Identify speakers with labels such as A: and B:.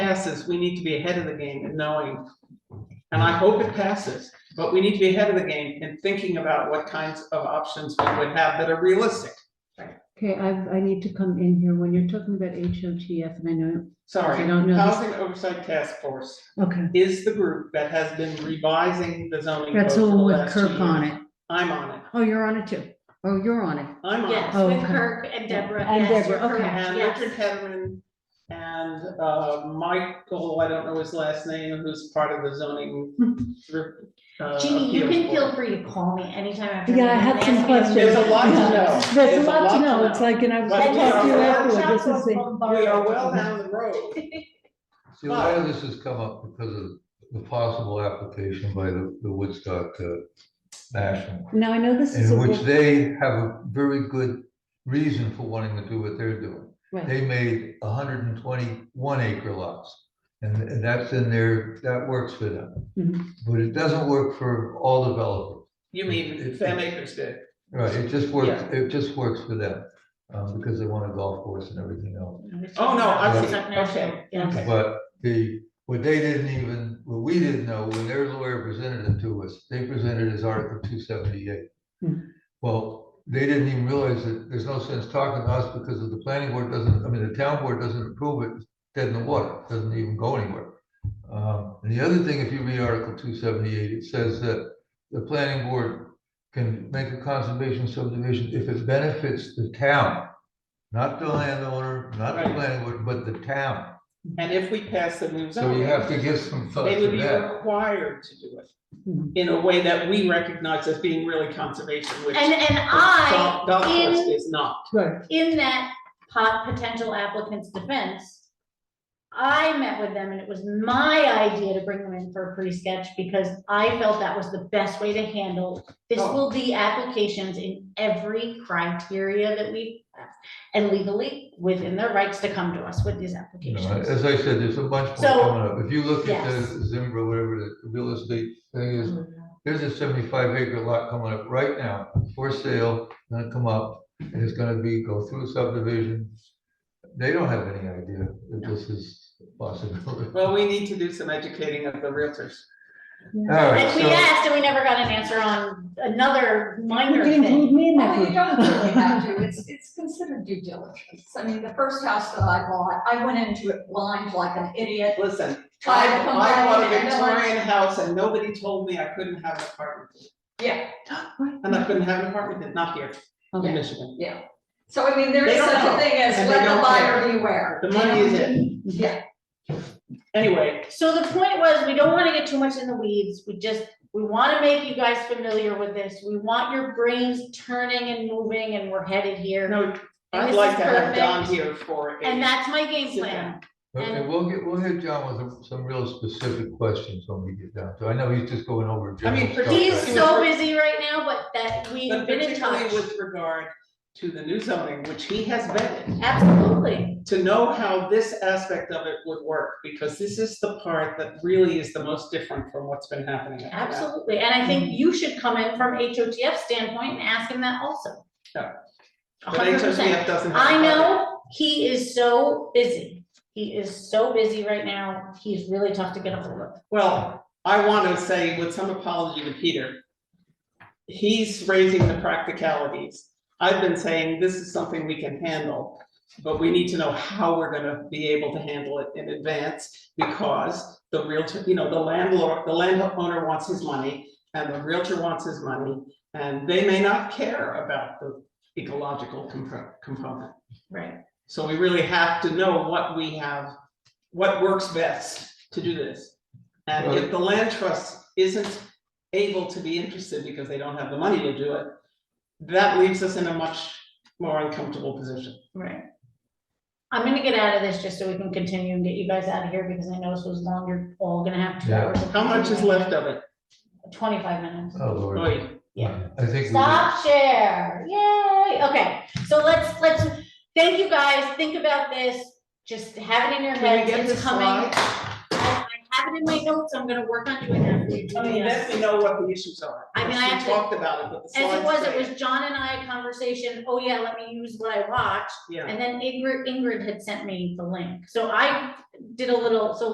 A: passes, we need to be ahead of the game and knowing. And I hope it passes, but we need to be ahead of the game and thinking about what kinds of options we would have that are realistic.
B: Okay, I, I need to come in here when you're talking about HOTF and I know,
A: Sorry,
B: I don't know.
A: Housing Oversight Task Force
B: okay,
A: is the group that has been revising the zoning.
B: that's
A: code for the
B: all with
A: last two
B: Kirk on
A: years.
B: it.
A: I'm on it,
B: Oh, you're on it too. Oh, you're on it.
A: I'm on it.
C: Yes,
B: Oh,
C: with
B: okay.
C: Kirk and Deborah.
B: And
C: Yes,
B: Deborah,
C: you're
B: okay.
C: correct,
A: And
C: yes.
A: Richard Hedman and uh, Michael, I don't know his last name, who's part of the zoning. uh,
C: Jeannie, you
A: appeals
C: can
A: board.
C: feel free to call me anytime after.
B: Yeah, I
C: the
B: have
C: meeting
B: some
C: and ask
B: questions.
C: me
A: There's a lot to
B: Yeah.
A: know.
B: There's a lot to know. It's like, and I was
A: But
B: gonna
C: And
A: we
B: talk to you
A: are-
B: afterward. This
C: workshops
B: is the.
C: was
A: We are
C: bombarded.
A: well down the road.
D: See, a lot of this has come up because of the possible application by the, the Woodstock uh, National,
B: Now, I know this is a
D: in which
B: book,
D: they have a very good reason for wanting to do what they're doing.
B: right,
D: They made hundred and twenty-one acre lots, and, and that's in their, that works for them.
B: Mhm.
D: But it doesn't work for all developers.
A: You mean Sam Akers did.
D: Right, it just works,
A: Yeah.
D: it just works for them, um, because they want a golf course and everything else.
A: Oh, no, I see,
C: Woodstock National,
A: okay,
C: yes.
A: okay.
D: But the, what they didn't even, what we didn't know, when their lawyer presented it to us, they presented as Article two seventy-eight.
B: Hmm.
D: Well, they didn't even realize that there's no sense talking to us because of the planning board doesn't, I mean, the town board doesn't approve it, it's dead in the water, it doesn't even go anywhere. Um, and the other thing, if you read Article two seventy-eight, it says that the planning board can make a conservation subdivision if it benefits the town. Not the landowner, not the
A: Right.
D: planning board, but the town.
A: And if we pass the new
D: So you
A: zoning,
D: have to give some thought
A: they
D: to
A: would be
D: that.
A: required to do
B: Mhm.
E: Hmm.
A: it in a way that we recognize as being really conservation, which
C: And, and I,
A: Dol- Dolphus
C: in-
A: is not.
B: right.
C: in that pot, potential applicant's defense, I met with them and it was my idea to bring them in for a pre-sketch because I felt that was the best way to handle. This
A: Oh.
C: will be applications in every criteria that we, and legally within their rights to come to us with these
D: You know,
C: applications.
D: As I said, there's a bunch more
C: So-
D: coming up. If you look at
C: Yes.
D: the Zimbra, whatever the real estate thing is, there's a seventy-five acre lot coming up right now for sale, gonna come up, and it's gonna be, go through subdivision. They don't have any idea that this is possible.
A: Well, we need to do some educating of the realtors.
D: All right,
C: Like we
D: so,
C: asked and we never got an answer on another
B: You
C: minor
B: can include
C: thing.
B: me in that
E: Well, Oh, you don't really have
B: group.
E: to, it's, it's considered due diligence. I mean, the first house that I bought, I went into it blind like an idiot.
A: Listen, I,
E: tried to come
A: I
E: back
A: bought a
E: in and no one-
A: Victorian house and nobody told me I couldn't have an apartment.
E: Yeah,
A: And I couldn't have an apartment, not here in Michigan.
E: yeah. So I mean, there
A: They
E: is
A: don't
E: such
A: know,
E: a thing as
A: and they
E: let
A: don't
E: the buyer
A: care.
E: beware.
A: The money is in.
E: Yeah.
A: Anyway,
C: So the point was, we don't wanna get too much in the weeds, we just, we wanna make you guys familiar with this, we want your brains turning and moving and we're headed here.
A: no,
C: And
A: I'd
C: this
A: like
C: is
A: to have
C: perfect.
A: Don here for a.
C: And that's my game
A: Sit
C: plan,
D: okay, we'll get, we'll hit John with some- some real specific questions when we get down to, it. I know he's just going over.
A: I mean,
D: general stuff,
C: he's
D: right?
A: Okay.
C: so busy right now, but that we've
A: But
C: been in
A: particularly
C: touch,
A: with regard to the new zoning, which he has vetted,
C: absolutely.
A: to know how this aspect of it would work, because this is the part that really is the most different from what's been happening. up to now.
C: Absolutely, and I think you should come in from HOTF standpoint and ask him that also.
A: Yeah. But
C: hundred percent.
A: HOTF doesn't have. a
C: I
A: budget.
C: know, he is so busy, he is so busy right now, he's really tough to get a hold of.
A: Well, I want to say with some apology to Peter. He's raising the practicalities. I've been saying this is something we can handle, but we need to know how we're gonna be able to handle it in advance because the realtor, you know, the landlord, the landowner wants his money and the realtor wants his money, and they may not care about the ecological compo- component.
C: Right.
A: So we really have to know what we have, what works best to do this. And if the land trust isn't able to be interested because they don't have the money to do it, that leaves us in a much more uncomfortable position.
C: Right. I'm gonna get out of this just so we can continue and get you guys out of here because I know this was long, you're all gonna have two
D: Yeah.
C: hours. of
A: How much is left of it?
C: Twenty-five minutes.
D: Oh, Lord.
A: Wait,
C: Yeah.
D: I think. we did-
C: Stop share, yay, okay, so let's, let's, thank you guys, think about this, just have it in your
A: Can we
C: heads,
A: get
C: it's
A: this
C: coming.
A: slide?
C: I I have have it in my notes, I'm gonna work on doing that. for you.
A: I mean, let me know what the issues are.
C: I mean, I
A: We
C: actually-
A: Talked about it, but the
C: As it
A: slides.
C: was, it
A: say
C: was John and I a conversation, oh yeah, let me use what I watched,
A: Yeah.
C: and then Ingrid, Ingrid had sent me the link, so I did a little, so